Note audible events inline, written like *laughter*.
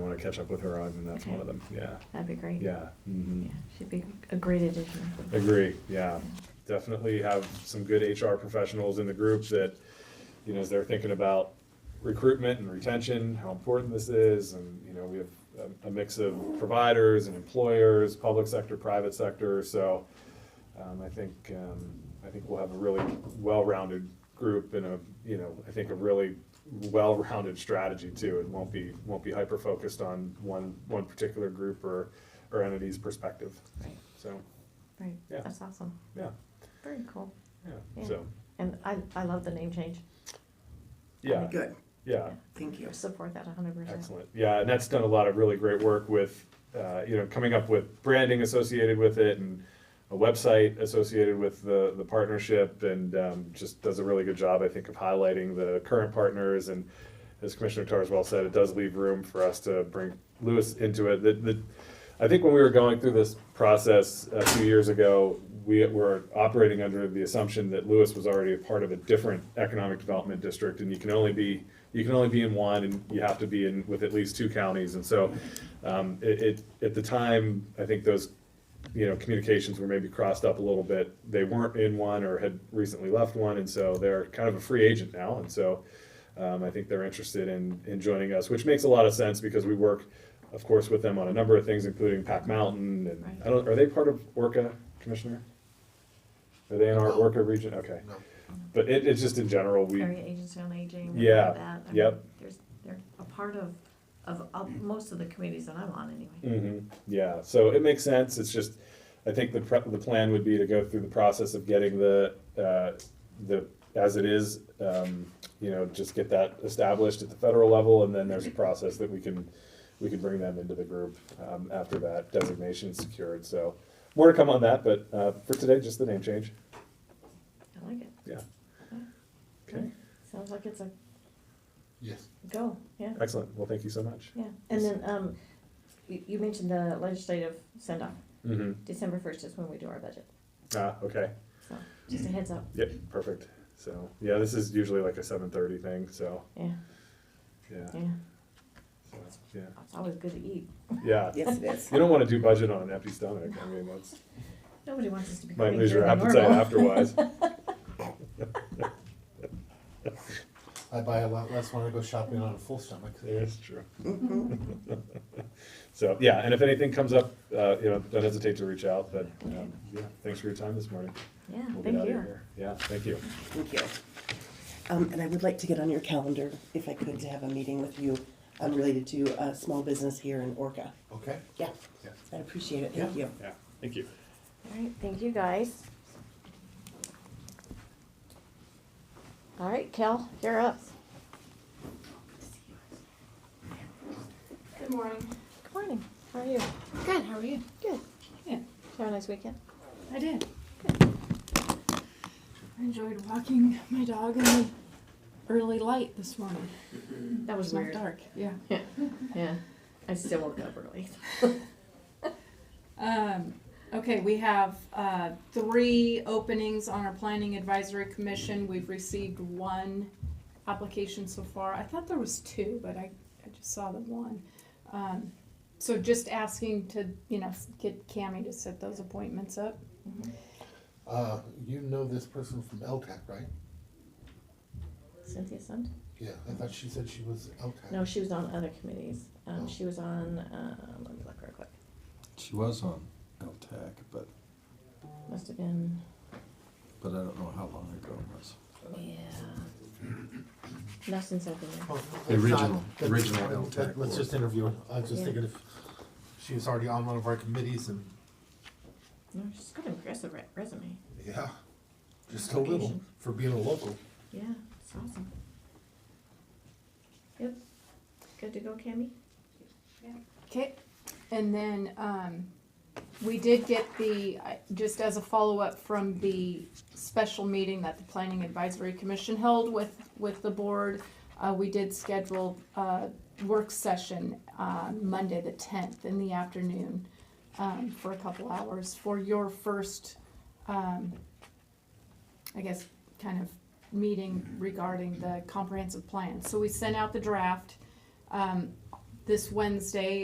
catch up with her on, and that's one Okay. of them, yeah, That'd be great. yeah. mhm. Yeah, she'd be a great addition. Agree, yeah. Definitely have some good HR professionals in the group that, you know, as they're thinking about recruitment and retention, how important this is, and, you know, we have a, a mix of providers and employers, public sector, private sector, so, um, I think, um, I think we'll have a really well-rounded group and a, you know, I think a really well-rounded strategy too. It won't be, won't be hyper-focused on one, one particular group or, or entity's perspective, Right, so, right. Yeah. That's awesome. yeah. Very cool. Yeah, Yeah. so, And I, I love the name change. yeah, Good, yeah, thank you. Support that hundred percent. excellent. Yeah, and that's done a lot of really great work with, uh, you know, coming up with branding associated with it and a website associated with the, the partnership and um, just does a really good job, I think, of highlighting the current partners. And as Commissioner Tarswell said, it does leave room for us to bring Lewis into it. The, the, I think when we were going through this process a few years ago, we were operating under the assumption that Lewis was already a part of a different economic development district, and you can only be, you can only be in one, and you have to be in, with at least two counties, and so, um, it, it, at the time, I think those, you know, communications were maybe crossed up a little bit. They weren't in one or had recently left one, and so they're kind of a free agent now, and so, um, I think they're interested in, in joining us, which makes a lot of sense because we work, of course, with them on a number of things, including Pac Mountain and, I don't, are they part of Orca, Commissioner? Are they in our Orca region? Okay. No. But it, it's just in general, we, Area Agency on Aging. Yeah, all that. I mean, yep. There's, they're a part of, of, of most of the committees that I'm on anyway. hmm yeah, so it makes sense, it's just, I think the prep, the plan would be to go through the process of getting the, uh, the, as it is, um, you know, just get that established at the federal level, and then there's a process that we can, we can bring them into the group, um, after that designation's secured, so. More to come on that, but, uh, for today, just the name change, I like it. yeah. Okay, Sounds like it's a Yes. go, yeah, excellent, well, thank you so much. yeah. And then, um, you, you mentioned the legislative send-off. Mm-hmm, December first is when we do our budget. ah, okay. So just a heads up, Yep, perfect. So, yeah, this is usually like a seven thirty thing, so, yeah, yeah, yeah. so, yeah, It's always good to eat. yeah. Yes, it is. You don't wanna do budget on an empty stomach, I mean, that's, Nobody wants us to be. might cooking lose your here than appetite normal. afterwards. I buy a lot less when I go shopping on a full stomach. That's true. *laughs* So, yeah, and if anything comes up, uh, you know, don't hesitate to reach out, but, um, yeah, thanks for your time this morning. *laughs* Yeah, We'll get thank out of you. here. Yeah, thank you. Thank you. Um, and I would like to get on your calendar, if I could, to have a meeting with you, um, related to a small business here in Orca. Okay? Yeah, Yes. I appreciate it, thank you. Yeah, thank you. All right, thank you, guys. All right, Kel, you're up. Good morning. Good morning, how are you? Good, how are you? Good. Yeah. Did you Have a nice weekend? I did. I enjoyed walking my dog in the early light this morning. Mm, That was It's not dark, yeah. Yeah, I still woke up early. Um, okay, we have, uh, three openings on our planning advisory commission. We've received one application so far. I thought there was two, but I, I just saw the one. Um, so just asking to, you know, get Cammy to set those appointments up. Uh, you know this person from LTAC, right? Cynthia Sund? Yeah, I thought she said she was LTAC. No, she was on other committees. Um, Oh. she was on, uh, let me look real quick. She was on LTAC, but, Must have been, but I don't know how long ago it was. yeah. Not since I've been there. Oh, The it's not- original- that's- original that- LTAC Let's board. just interview her. I was just Yeah. thinking if she was already on one of our committees and, No, she's got an impressive re- resume. yeah, just a little Application. for being a local. Yeah, it's awesome. Yep. Good to go, Cammy? Okay, and then, um, we did get the, I- just as a follow-up from the special meeting that the Planning Advisory Commission held with, with the board, uh, we did schedule a work session, uh, Monday the tenth in the afternoon, um, for a couple hours for your first, um, I guess, kind of meeting regarding the comprehensive plan. So we sent out the draft. Um, this Wednesday